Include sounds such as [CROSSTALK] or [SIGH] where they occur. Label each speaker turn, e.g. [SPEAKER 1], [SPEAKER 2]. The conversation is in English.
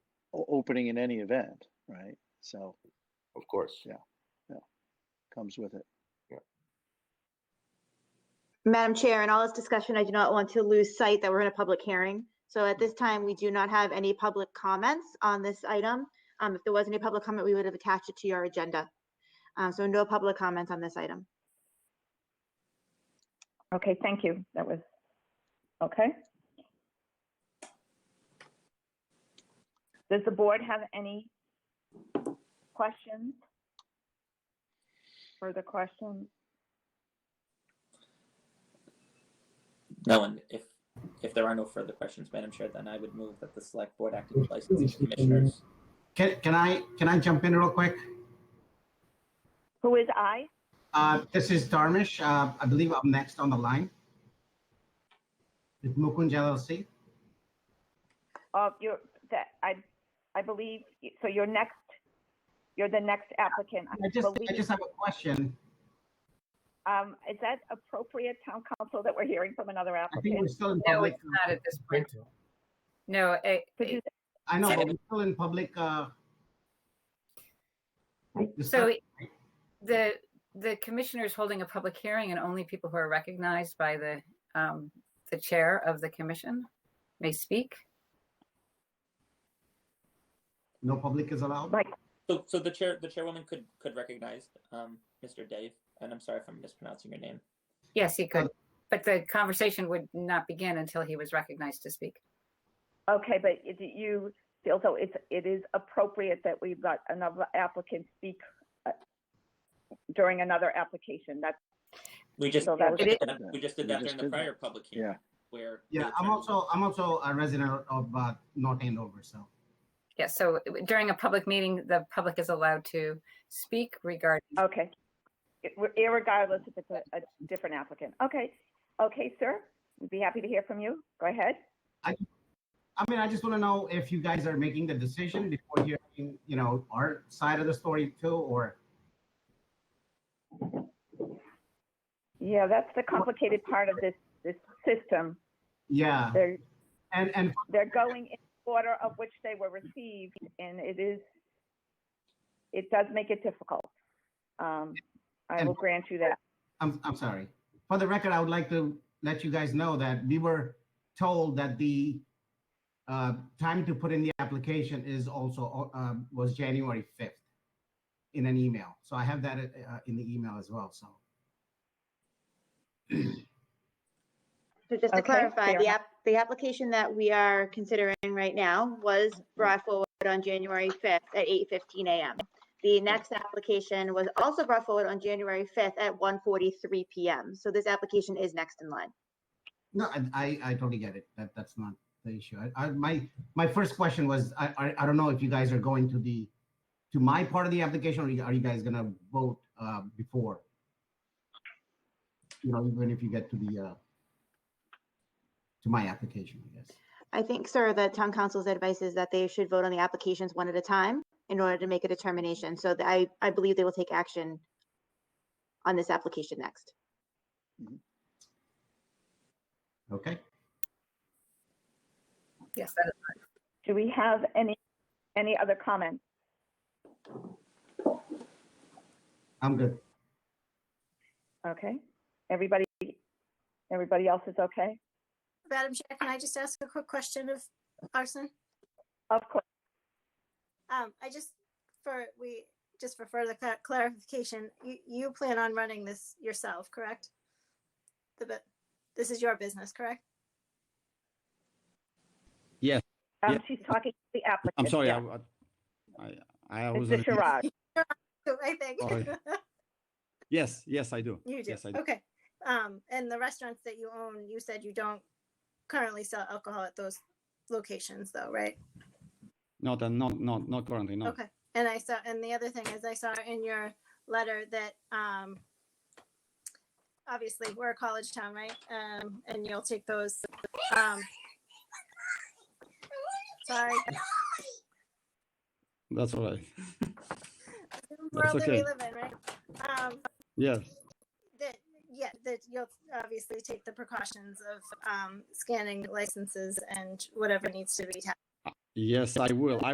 [SPEAKER 1] opening in any event, right? So
[SPEAKER 2] of course.
[SPEAKER 1] Yeah. comes with it.
[SPEAKER 3] Madam Chair, in all this discussion, I do not want to lose sight that we're in a public hearing. So at this time, we do not have any public comments on this item. Um, If there was any public comment, we would have attached it to your agenda. Uh, So no public comments on this item.
[SPEAKER 4] Okay, thank you. That was, okay. Does the board have any questions? Further questions?
[SPEAKER 5] No, and if, if there are no further questions, Madam Chair, then I would move that the Select Board acting as licensing commissioners.
[SPEAKER 6] Can, can I, can I jump in real quick?
[SPEAKER 4] Who is I?
[SPEAKER 6] Uh, this is Darmish. Uh, I believe I'm next on the line. With Mukunj LLC.
[SPEAKER 4] Uh, you're, that, I, I believe, so you're next, you're the next applicant.
[SPEAKER 6] I just, I just
[SPEAKER 4] believe.
[SPEAKER 6] have a question.
[SPEAKER 4] Um, is that appropriate, town council, that we're hearing from another
[SPEAKER 6] I think we're
[SPEAKER 4] applicant?
[SPEAKER 6] still in
[SPEAKER 7] No,
[SPEAKER 6] public. uh,
[SPEAKER 7] it's not at this point. No, eh, it,
[SPEAKER 4] Could you-
[SPEAKER 7] it-
[SPEAKER 6] I know, but we're
[SPEAKER 7] [LAUGHS]
[SPEAKER 6] still in public, uh.
[SPEAKER 7] so the, the commissioner is holding a public hearing and only people who are recognized by the, um, the chair of the commission may speak.
[SPEAKER 6] No public is allowed?
[SPEAKER 4] Right.
[SPEAKER 5] So, so the chair, the chairwoman could, could recognize, um, Mr. Dave, and I'm sorry if I'm mispronouncing your name.
[SPEAKER 7] Yes, he could, but the conversation would not begin until he was recognized to speak.
[SPEAKER 4] Okay, but do you feel so it's, it is appropriate that we've got another applicant speak uh, during another application? That's,
[SPEAKER 5] We just,
[SPEAKER 4] So that
[SPEAKER 5] we just
[SPEAKER 4] was-
[SPEAKER 5] did that- we just did
[SPEAKER 1] We
[SPEAKER 5] that
[SPEAKER 1] just
[SPEAKER 5] during the
[SPEAKER 1] did that.
[SPEAKER 5] prior public hearing.
[SPEAKER 1] Yeah.
[SPEAKER 5] Where.
[SPEAKER 6] Yeah,
[SPEAKER 5] the
[SPEAKER 6] I'm
[SPEAKER 5] chair-
[SPEAKER 6] also, I'm also a resident of, uh, North Andover, so.
[SPEAKER 7] Yes, so during a public meeting, the public is allowed to speak regarding,
[SPEAKER 4] okay. It- we're- Irregardless if it's a, a different applicant. Okay, okay, sir, we'd be happy to hear from you. Go ahead.
[SPEAKER 6] I mean, I just want to know if you guys are making the decision before hearing, you know, our side of the story too, or
[SPEAKER 4] Yeah, that's the complicated part of this, this system.
[SPEAKER 6] yeah,
[SPEAKER 4] They're,
[SPEAKER 6] and and
[SPEAKER 4] they're going in order of which they were received, and it is, it does make it difficult. Um, I will grant you that.
[SPEAKER 6] I'm I'm sorry. For the record, I would like to let you guys know that we were told that the uh, time to put in the application is also uh, was January fifth in an email. So I have that uh, in the email as well. So
[SPEAKER 3] So just to
[SPEAKER 4] Okay,
[SPEAKER 3] clarify,
[SPEAKER 4] fair
[SPEAKER 3] the
[SPEAKER 4] enough.
[SPEAKER 3] app, the application that we are considering right now was brought forward on January 5th at 8:15 a.m. The next application was also brought forward on January 5th at 1:43 p.m. So this application is next in line.
[SPEAKER 6] no, I I, I totally get it. That that's not the issue. I, I my my first question was I, I I don't know if you guys are going to the to my part of the application or you- are you guys gonna vote uh, before? You know, even if you get to the uh, to my application, I guess.
[SPEAKER 3] I think, sir, the town council's advice is that they should vote on the applications one at a time in order to make a determination. So that I, I believe they will take action on this application next.
[SPEAKER 6] Okay.
[SPEAKER 7] yes, that is
[SPEAKER 4] Do we have any, any other comments?
[SPEAKER 6] I'm good.
[SPEAKER 4] Okay, everybody, everybody else is okay?
[SPEAKER 8] Madam Chair, can I just ask a quick question of Arson?
[SPEAKER 4] Of course,
[SPEAKER 8] Um, I just, for, we, just for further clar- clarification, you, you plan on running this yourself, correct? The, bu- this is your business, correct? [LAUGHS]
[SPEAKER 4] um,
[SPEAKER 9] Yeah.
[SPEAKER 4] she's talking to the applicant.
[SPEAKER 9] I'm sorry,
[SPEAKER 4] yeah.
[SPEAKER 9] I, I, I was.
[SPEAKER 4] Mr. Sherrod,
[SPEAKER 8] I think. [LAUGHS]
[SPEAKER 9] Sorry. Yes, yes, I do.
[SPEAKER 8] You do,
[SPEAKER 9] Yes, I do.
[SPEAKER 8] okay. Um, and the restaurants that you own, you said you don't currently sell alcohol at those locations though, right?
[SPEAKER 9] Not, uh, not, not, not currently, no.
[SPEAKER 8] Okay, and I saw, and the other thing is I saw in your letter that, um, obviously, we're a college town, right? Um, and you'll take those, um, sorry.
[SPEAKER 9] That's all right.
[SPEAKER 8] World that we
[SPEAKER 9] okay.
[SPEAKER 8] live in, right? Um,
[SPEAKER 9] Yes,
[SPEAKER 8] that, yeah, that you'll obviously take the precautions of, um, scanning licenses and whatever needs to be taxed.
[SPEAKER 9] yes, I will. I